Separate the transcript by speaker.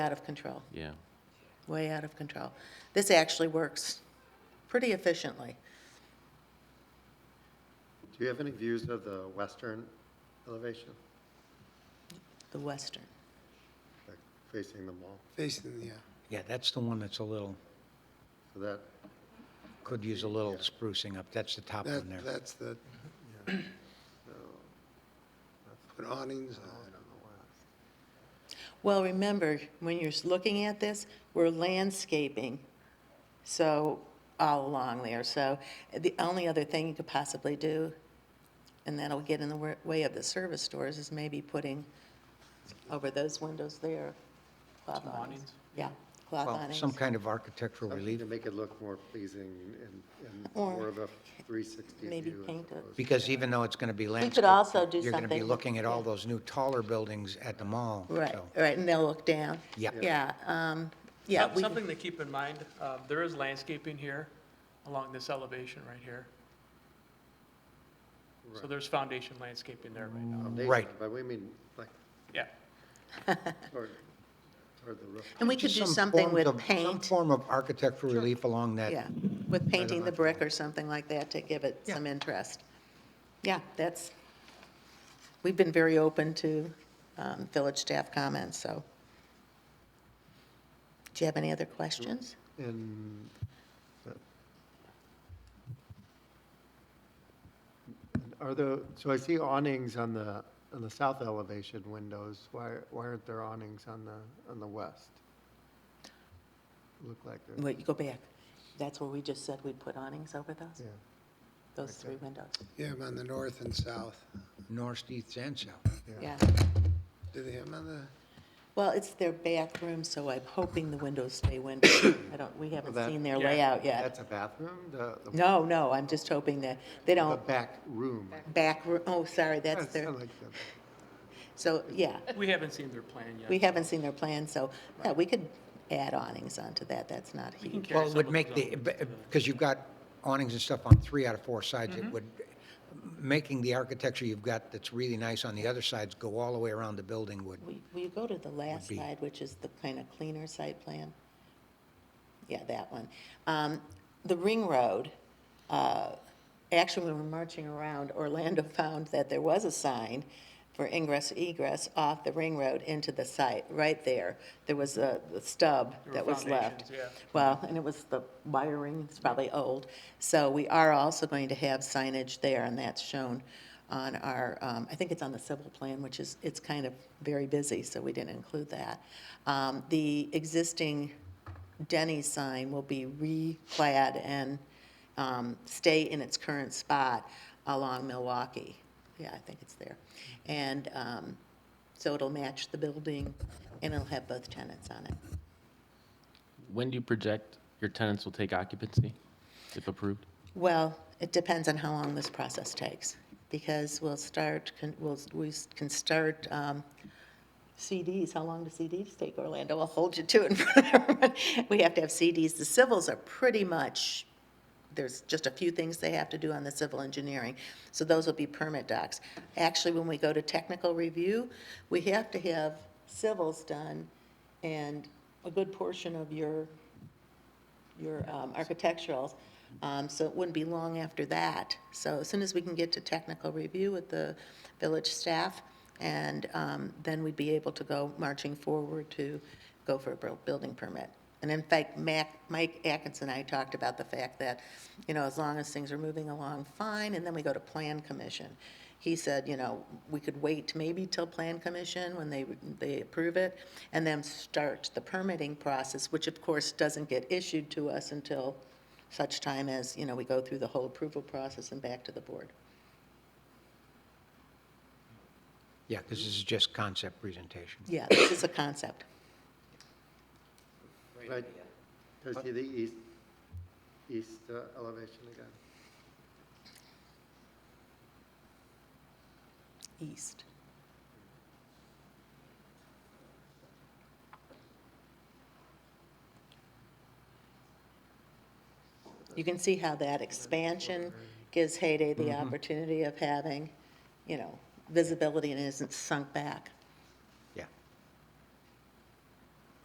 Speaker 1: out of control,
Speaker 2: Yeah,
Speaker 1: way out of control. This actually works pretty efficiently.
Speaker 3: Do you have any views of the western elevation
Speaker 1: The Western.
Speaker 3: like facing the mall?
Speaker 4: Facing, yeah.
Speaker 5: Yeah, that's the one that's a little,
Speaker 3: So that,
Speaker 5: could use a little sprucing up. That's the top one
Speaker 4: That,
Speaker 5: there.
Speaker 4: that's the, put awnings on.
Speaker 1: Well, remember, when you're looking at this, we're landscaping, so, all along there. So the only other thing you could possibly do, and that'll get in the wa- way of the service doors, is maybe putting over those windows there, cloth awnings. Yeah, cloth
Speaker 5: Well,
Speaker 1: awnings.
Speaker 5: some kind of architectural
Speaker 3: something
Speaker 5: relief,
Speaker 3: to make it look more pleasing and, and
Speaker 1: Or
Speaker 3: more of a 360
Speaker 1: maybe
Speaker 3: view. as
Speaker 1: paint it.
Speaker 3: opposed-
Speaker 5: because even though it's going to be landscaped.
Speaker 1: also do
Speaker 5: You're going to be
Speaker 1: something-
Speaker 5: looking at all
Speaker 1: yeah.
Speaker 5: those new taller buildings at the mall.
Speaker 1: Right,
Speaker 5: so-
Speaker 1: right, and they'll look down.
Speaker 5: Yeah.
Speaker 1: Yeah, um, yeah.
Speaker 6: Some-
Speaker 1: we-
Speaker 6: Something to keep in mind, uh, there is landscaping here along this elevation right here. So there's foundation landscaping there right now.
Speaker 3: Foundation,
Speaker 5: Right.
Speaker 3: But we mean, like,
Speaker 6: Yeah,
Speaker 3: toward, toward the roof.
Speaker 1: And we could
Speaker 5: Just
Speaker 1: do
Speaker 5: some
Speaker 1: something
Speaker 5: forms
Speaker 1: with
Speaker 5: of- Some
Speaker 1: paint,
Speaker 5: form of architectural relief along
Speaker 1: yeah,
Speaker 5: that.
Speaker 1: with painting the brick or something like that to give it
Speaker 5: Yeah.
Speaker 1: some interest. Yeah, that's, we've been very open to um, village staff comments, so. Do you have any other questions?
Speaker 3: And, uh, and are the, so I see awnings on the, on the south elevation windows. Why, why aren't there awnings on the, on the west? Look like there's,
Speaker 1: Wait, you go back. That's where we just said we'd put awnings over those,
Speaker 3: yeah.
Speaker 1: those three windows.
Speaker 4: You have 'em on the north and south.
Speaker 5: North, east, and south.
Speaker 1: Yeah.
Speaker 4: Do they have 'em on the,
Speaker 1: Well, it's their back room, so I'm hoping the windows stay windowed. I don't, we haven't
Speaker 3: That-
Speaker 1: seen their
Speaker 6: Yeah.
Speaker 1: layout yet.
Speaker 3: That's a bathroom? The, the-
Speaker 1: No, no, I'm just hoping that they
Speaker 3: the
Speaker 1: don't
Speaker 3: back room?
Speaker 1: back, ro- oh, sorry, that's
Speaker 3: That's
Speaker 1: their,
Speaker 3: kinda like the-
Speaker 1: so, yeah,
Speaker 6: we haven't seen their plan yet.
Speaker 1: we haven't seen their plan, so, yeah, we could add awnings onto that, that's not
Speaker 6: We can
Speaker 1: huge.
Speaker 6: carry
Speaker 5: Well, it
Speaker 6: some
Speaker 5: would
Speaker 6: of
Speaker 5: make
Speaker 6: those
Speaker 5: the,
Speaker 6: over to
Speaker 5: because you've got awnings and stuff on three out of four sides, it would, making the architecture you've got that's really nice on the other sides go all the way around the building would,
Speaker 1: Will will you go to the last
Speaker 5: be-
Speaker 1: slide, which is the kind of cleaner site plan? Yeah, that one. Um, The Ring Road, uh, actually, when we were marching around, Orlando found that there was a sign for ingress egress off the Ring Road into the site, right there. There was a the stub
Speaker 6: There were
Speaker 1: that was left.
Speaker 6: foundations, yeah.
Speaker 1: Well, and it was the wiring, it's probably old. So we are also going to have signage there, and that's shown on our, um, I think it's on the civil plan, which is, it's kind of very busy, so we didn't include that. Um, The existing Denny sign will be re-clad and um, stay in its current spot along Milwaukee. Yeah, I think it's there. And um, so it'll match the building, and it'll have both tenants on it.
Speaker 2: when do you project your tenants will take occupancy, if approved?
Speaker 1: Well, it depends on how long this process takes, because we'll start, con- we'll, we can start um, CDs. How long do CDs take, Orlando? I'll hold you to it. in front of everyone. We have to have CDs. The civils are pretty much, there's just a few things they have to do on the civil engineering, so those will be permit docs. Actually, when we go to technical review, we have to have civils done and a good portion of your your um, architecturals. Um, So it wouldn't be long after that. So as soon as we can get to technical review with the village staff, and um, then we'd be able to go marching forward to go for a buil- building permit. And in fact, Mac, Mike Atkins and I talked about the fact that, you know, as long as things are moving along, fine, and then we go to plan commission. He said, you know, we could wait maybe till Plan Commission when they, they approve it, and then start the permitting process, which of course doesn't get issued to us until such time as, you know, we go through the whole approval process and back to the board.
Speaker 5: yeah, because this is just concept presentation.
Speaker 1: Yeah, this is a concept.
Speaker 3: Right, can I see the east, east uh, elevation again?
Speaker 1: East. You can see how that expansion gives Hayday the opportunity of having, you know, visibility and isn't sunk back.